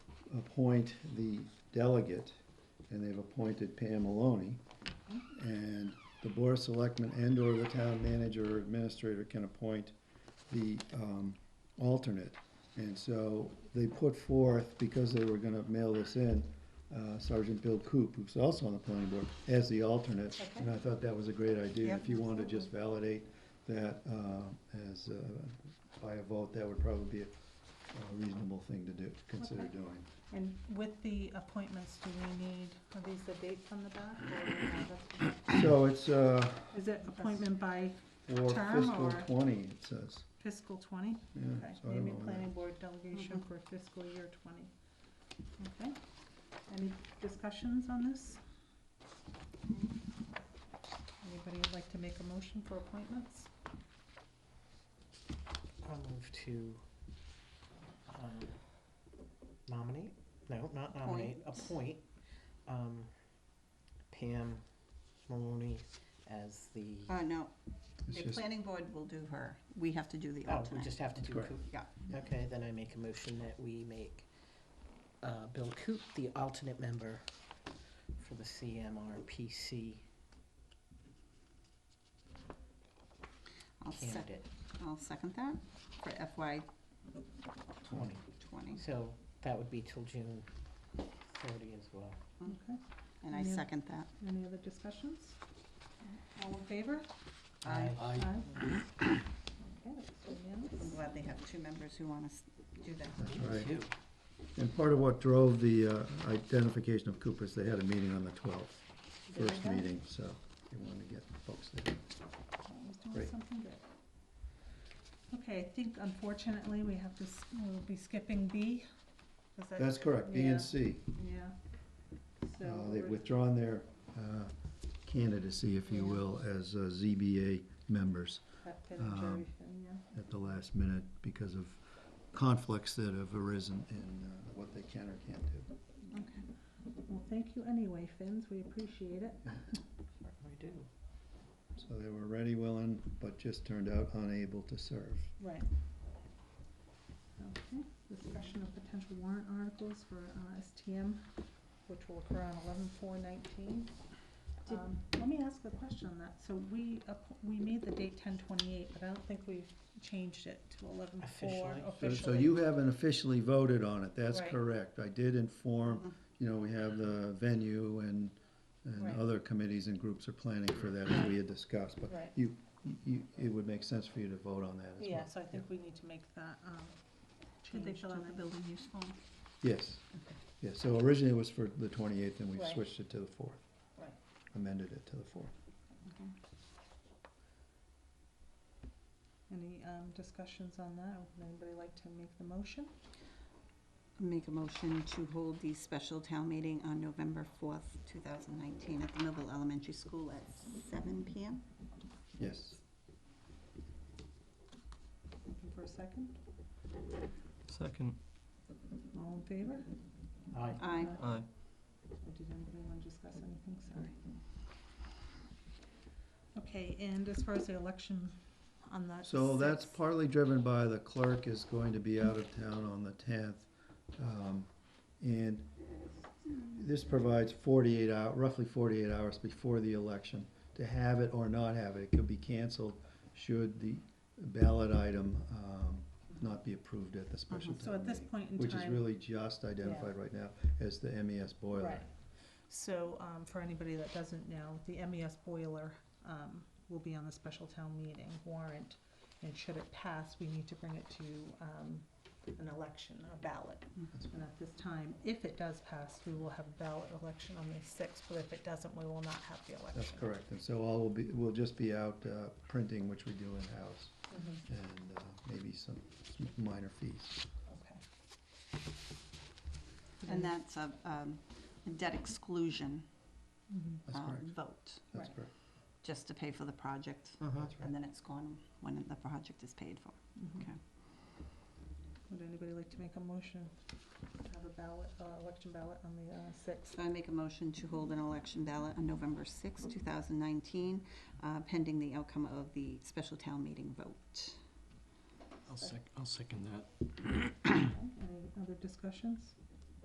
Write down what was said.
appoint the delegate, and they've appointed Pam Maloney. And the board of selectmen and or the town manager or administrator can appoint the, um, alternate. And so they put forth, because they were gonna mail this in, uh, Sergeant Bill Coop, who's also on the planning board, as the alternate. And I thought that was a great idea. If you want to just validate that, uh, as, uh, by a vote, that would probably be a a reasonable thing to do, consider Okay. doing. And with the appointments, do we need, are these the dates on the back? or- So it's, uh, Is it appointment by for Term fiscal or- twenty, it says, fiscal twenty? yeah, Okay, so I don't maybe know. when planning board delegation for fiscal year twenty. Okay, any discussions on this? Anybody like to make a motion for appointments? I'll move to um, nominate, no, not nominate, appoint um, Pam Maloney as the, oh, Uh, no, that- It's the just, planning board will do her. We have to do the Oh, we alternate. just have to do Correct. Coop. Yeah. Okay, then I make a motion that we make uh, Bill Coop the alternate member for the CMRPC I'll sec, candidate I'll second that for FY twenty. twenty. So that would be till June thirty as well. Okay, And I Yeah. second that. any other discussions? All in favor? Aye. Aye. Aye. Okay, that's I'm unanimous. glad they have two members who want to do that. that's right. Two. And part of what drove the uh, identification of Cooper is they had a meeting on the twelfth, There we first go. meeting, so they wanted to get folks there. Always doing Great. something good. Okay, I think unfortunately we have to, s- we'll be skipping B. 'cause that- That's correct, B Yeah. and C, Yeah. uh, So they've we're- withdrawn their, uh, candidacy, if you Yeah. will, as uh, ZBA members. that Pin and um, Jerry thing, yeah. at the last minute because of conflicts that have arisen in uh, what they can or can't do. Well, thank you anyway, Finns, we appreciate it. We do. So they were ready, willing, but just turned out unable to serve. Right. Okay, discussion of potential warrant articles for uh, STM, which will occur on eleven four nineteen. Um, Did- Let me ask a question on that. So we, app- we made the date ten twenty-eight, but I don't think we've changed it to eleven four Officially. So- officially. So you haven't officially voted on it, that's Right. Mm-hmm. correct. I did inform, you know, we have the venue and, Right. and other committees and groups are planning for that as we had discussed. But Right. you, you, it would make sense for you to vote on that as well. Yeah, so I think we need to make that, um, Did change. they fill to out the building use form? Yes, yes. So originally it was for the twenty-eighth and we Right. switched it to the fourth. Right. Amended it to the fourth. Any, um, discussions on that? Would anybody like to make the motion? Make a motion to hold the special town meeting on November fourth, two thousand nineteen, at the Millville Elementary School at seven PM. Yes. Looking for a second? Second, All in favor? Aye. Aye. aye. Or did anybody want to discuss anything? Sorry. Okay, and as far as the election on that. So that's sixth- partly driven by the clerk is going to be out of town on the tenth. um, And this provides forty-eight hour, roughly forty-eight hours before the election to have it or not have it. It could be canceled should the ballot item um, not be approved at the special Uh-huh. So town at this meeting. point in time. Which is really just identified right now as the MES boiler. Right. So, um, for anybody that doesn't know, the MES boiler, um, will be on the special town meeting warrant. And should it pass, we need to bring it to, um, an election, a ballot. And at this time, if it does pass, we will have a ballot election on the sixth, but if it doesn't, we will not have the election. That's correct. And so all will be, we'll just be out uh, printing, which we do in-house. Mhm. and uh, maybe some minor fees. Okay. And that's a, um, a debt exclusion, Mm-hmm. That's um, correct. vote, That's right. correct. just to pay for the project. Uh-huh. That's And right. then it's gone when the project is paid for. Mhm. Okay. Would anybody like to make a motion to have a ballot, uh, election ballot on the, uh, sixth? So I make a motion to hold an election ballot on November sixth, two thousand nineteen, uh, pending the outcome of the special town meeting vote. I'll sec, I'll second that. Any other discussions?